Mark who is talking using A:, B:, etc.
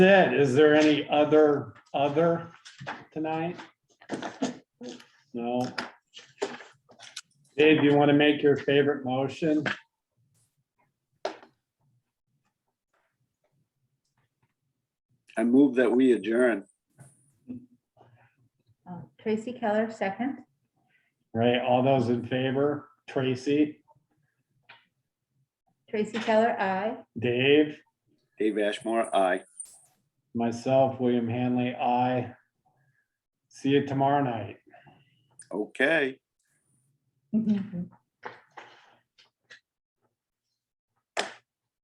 A: it. Is there any other, other tonight? No. Dave, you want to make your favorite motion?
B: I move that we adjourn.
C: Uh, Tracy Keller, second.
A: Right, all those in favor? Tracy,
C: Tracy Keller, I.
A: Dave,
B: Dave Ashmore, aye.
A: myself, William Hanley, I. See you tomorrow night.
B: Okay.
C: Good